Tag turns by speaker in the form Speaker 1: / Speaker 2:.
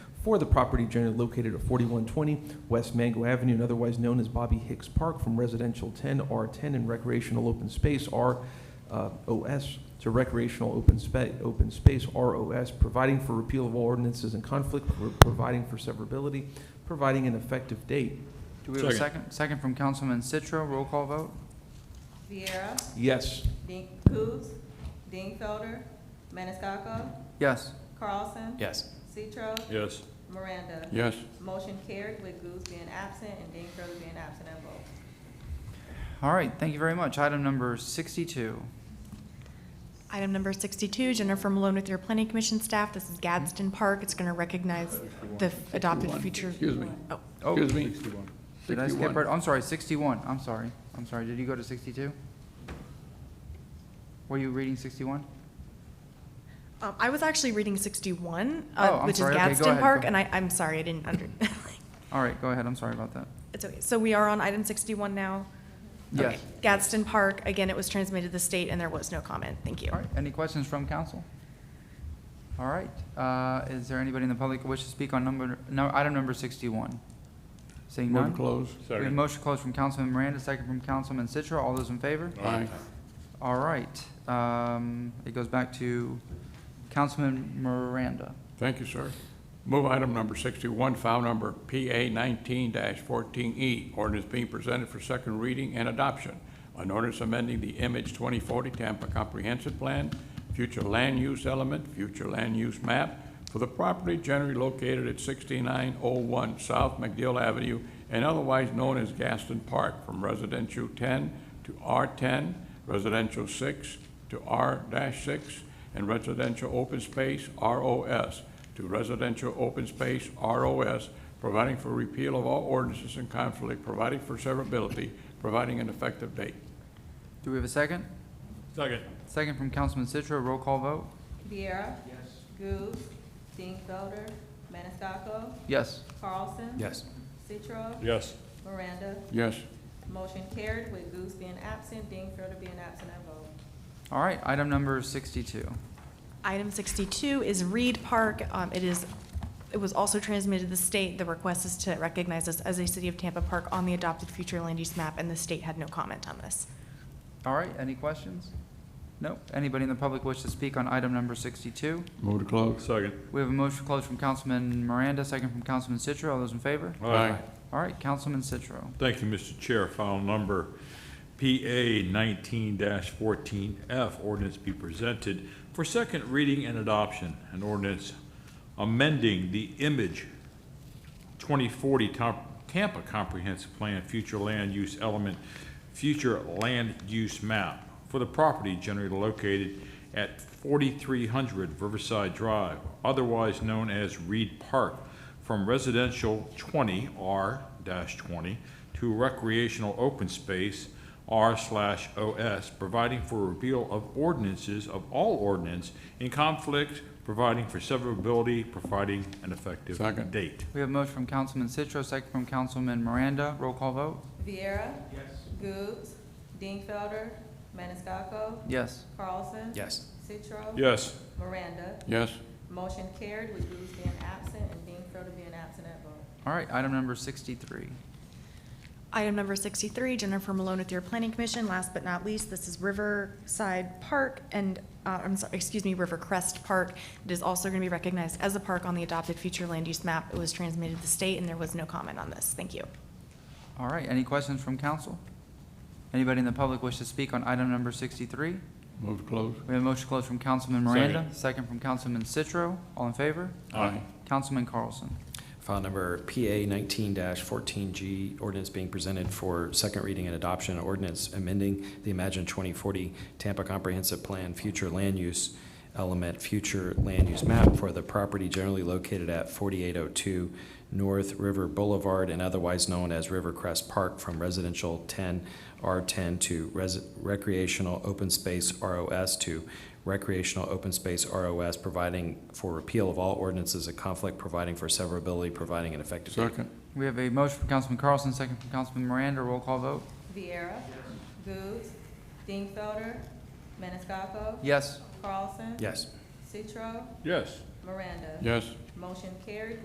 Speaker 1: for the property generally located at 4120 West Mango Avenue, and otherwise known as Bobby Hicks Park, from residential 10 R10 and recreational open space R uh, OS to recreational open spa- open space ROS, providing for repeal of all ordinances in conflict, pro- providing for severability, providing an effective date.
Speaker 2: Do we have a
Speaker 3: Second.
Speaker 2: second? Second from Councilman Citro, roll call vote?
Speaker 4: Viera,
Speaker 1: Yes.
Speaker 4: Ding, Coos, Dingfelder, Maniscalco,
Speaker 2: Yes.
Speaker 4: Carlson.
Speaker 5: Yes.
Speaker 4: Citro,
Speaker 3: Yes.
Speaker 4: Miranda.
Speaker 3: Yes.
Speaker 4: Motion carried with Coos being absent and Dingfelder being absent at vote.
Speaker 2: All right, thank you very much. Item number sixty-two.
Speaker 6: Item number 62, Jennifer Malone with your Planning Commission staff. This is Gadsden Park. It's going to recognize the f- adopted future.
Speaker 3: Excuse me.
Speaker 6: Oh,
Speaker 2: Oh,
Speaker 3: Excuse me.
Speaker 2: Did I skip
Speaker 3: 61.
Speaker 2: right? I'm sorry, sixty-one, I'm sorry. I'm sorry, did you go to sixty-two? Were you reading sixty-one?
Speaker 6: um, I was actually reading 61,
Speaker 2: Oh,
Speaker 6: uh,
Speaker 2: I'm
Speaker 6: which is
Speaker 2: sorry. Okay, go
Speaker 6: Gadsden
Speaker 2: ahead, go
Speaker 6: Park,
Speaker 2: ahead.
Speaker 6: and I, I'm sorry, I didn't under,
Speaker 2: All right, go ahead, I'm sorry about that.
Speaker 6: it's okay. So we are on item 61 now? Okay.
Speaker 2: Yes.
Speaker 6: Gadsden Park, again, it was transmitted to the state and there was no comment. Thank you.
Speaker 2: All right, any questions from council? All right, uh, is there anybody in the public who wishes to speak on number, no, item number sixty-one? Seeing
Speaker 3: Move
Speaker 2: none?
Speaker 3: to close.
Speaker 2: We have a motion closed from Councilman Miranda, second from Councilman Citro. All those in favor?
Speaker 3: Aye.
Speaker 2: All right. Um, it goes back to Councilman Miranda.
Speaker 3: Thank you, sir. Move item number sixty-one, file number PA nineteen fourteen E, ordinance being presented for second reading and adoption. An ordinance amending the Image twenty forty Tampa Comprehensive Plan, future land use element, future land use map for the property generally located at sixty-nine oh one South McDill Avenue and otherwise known as Gaston Park, from residential ten to R ten, residential six to R six, and residential open space, ROS, to residential open space, ROS, providing for repeal of all ordinances in conflict, providing for severability, providing an effective date.
Speaker 2: Do we have a second?
Speaker 3: Second.
Speaker 2: Second from Councilman Citro. Roll call vote?
Speaker 4: Viera. Goos, Dingfelder, Maniscalco,
Speaker 2: Yes.
Speaker 4: Carlson.
Speaker 5: Yes.
Speaker 4: Citro,
Speaker 3: Yes.
Speaker 4: Miranda.
Speaker 3: Yes.
Speaker 4: Motion carried with Goos being absent, Dingfelder being absent at vote.
Speaker 2: All right, item number sixty-two.
Speaker 6: Item 62 is Reed Park. Um, It is, it was also transmitted to the state. The request is to recognize us as a City of Tampa Park on the adopted future land use map, and the state had no comment on this.
Speaker 2: All right, any questions? Nope. Anybody in the public wish to speak on item number sixty-two?
Speaker 3: Move to close. Second.
Speaker 2: We have a motion closed from Councilman Miranda, second from Councilman Citro. All those in favor?
Speaker 3: Aye.
Speaker 2: All right, Councilman Citro.
Speaker 7: Thank you, Mr. Chair. File number PA 19-14F, ordinance be presented for second reading and adoption, an ordinance amending the image 2040 Tom- Tampa Comprehensive Plan, future land use element, future land use map for the property generally located at 4300 Riverside Drive, otherwise known as Reed Park, from residential 20R-20 to recreational open space R slash OS, providing for repeal of ordinances of all ordinance in conflict, providing for severability, providing an effective
Speaker 3: Second.
Speaker 7: date.
Speaker 2: We have a motion from Councilman Citro, second from Councilman Miranda. Roll call vote?
Speaker 4: Viera. Yes. Goos, Dingfelder, Maniscalco,
Speaker 2: Yes.
Speaker 4: Carlson.
Speaker 5: Yes.
Speaker 4: Citro.
Speaker 7: Yes.
Speaker 4: Miranda.
Speaker 3: Yes.
Speaker 4: Motion carried with Goos being absent and Dingfelder being absent at vote.
Speaker 2: All right, item number sixty-three.
Speaker 6: Item number 63, Jennifer Malone with your Planning Commission. Last but not least, this is Riverside Park and, uh, I'm sorry, excuse me, River Crest Park. It is also going to be recognized as a park on the adopted future land use map. It was transmitted to the state, and there was no comment on this. Thank you.
Speaker 2: All right, any questions from council? Anybody in the public wish to speak on item number sixty-three?
Speaker 3: Move to close.
Speaker 2: We have a motion closed from Councilman Miranda, second from Councilman Citro. All in favor?
Speaker 3: Aye.
Speaker 2: Councilman Carlson.
Speaker 5: File number PA nineteen fourteen G, ordinance being presented for second reading and adoption, ordinance amending the Imagine twenty forty Tampa Comprehensive Plan, future land use element, future land use map for the property generally located at forty-eight oh two North River Boulevard and otherwise known as River Crest Park from residential ten R ten to res- recreational open space ROS to recreational open space ROS, providing for repeal of all ordinances in conflict, providing for severability, providing an effective date.
Speaker 3: Second.
Speaker 2: We have a motion from Councilman Carlson, second from Councilman Miranda. Roll call vote?
Speaker 4: Viera. Goos, Dingfelder, Maniscalco,
Speaker 2: Yes.
Speaker 4: Carlson.
Speaker 5: Yes.
Speaker 4: Citro,
Speaker 3: Yes.
Speaker 4: Miranda.
Speaker 3: Yes.
Speaker 4: Motion carried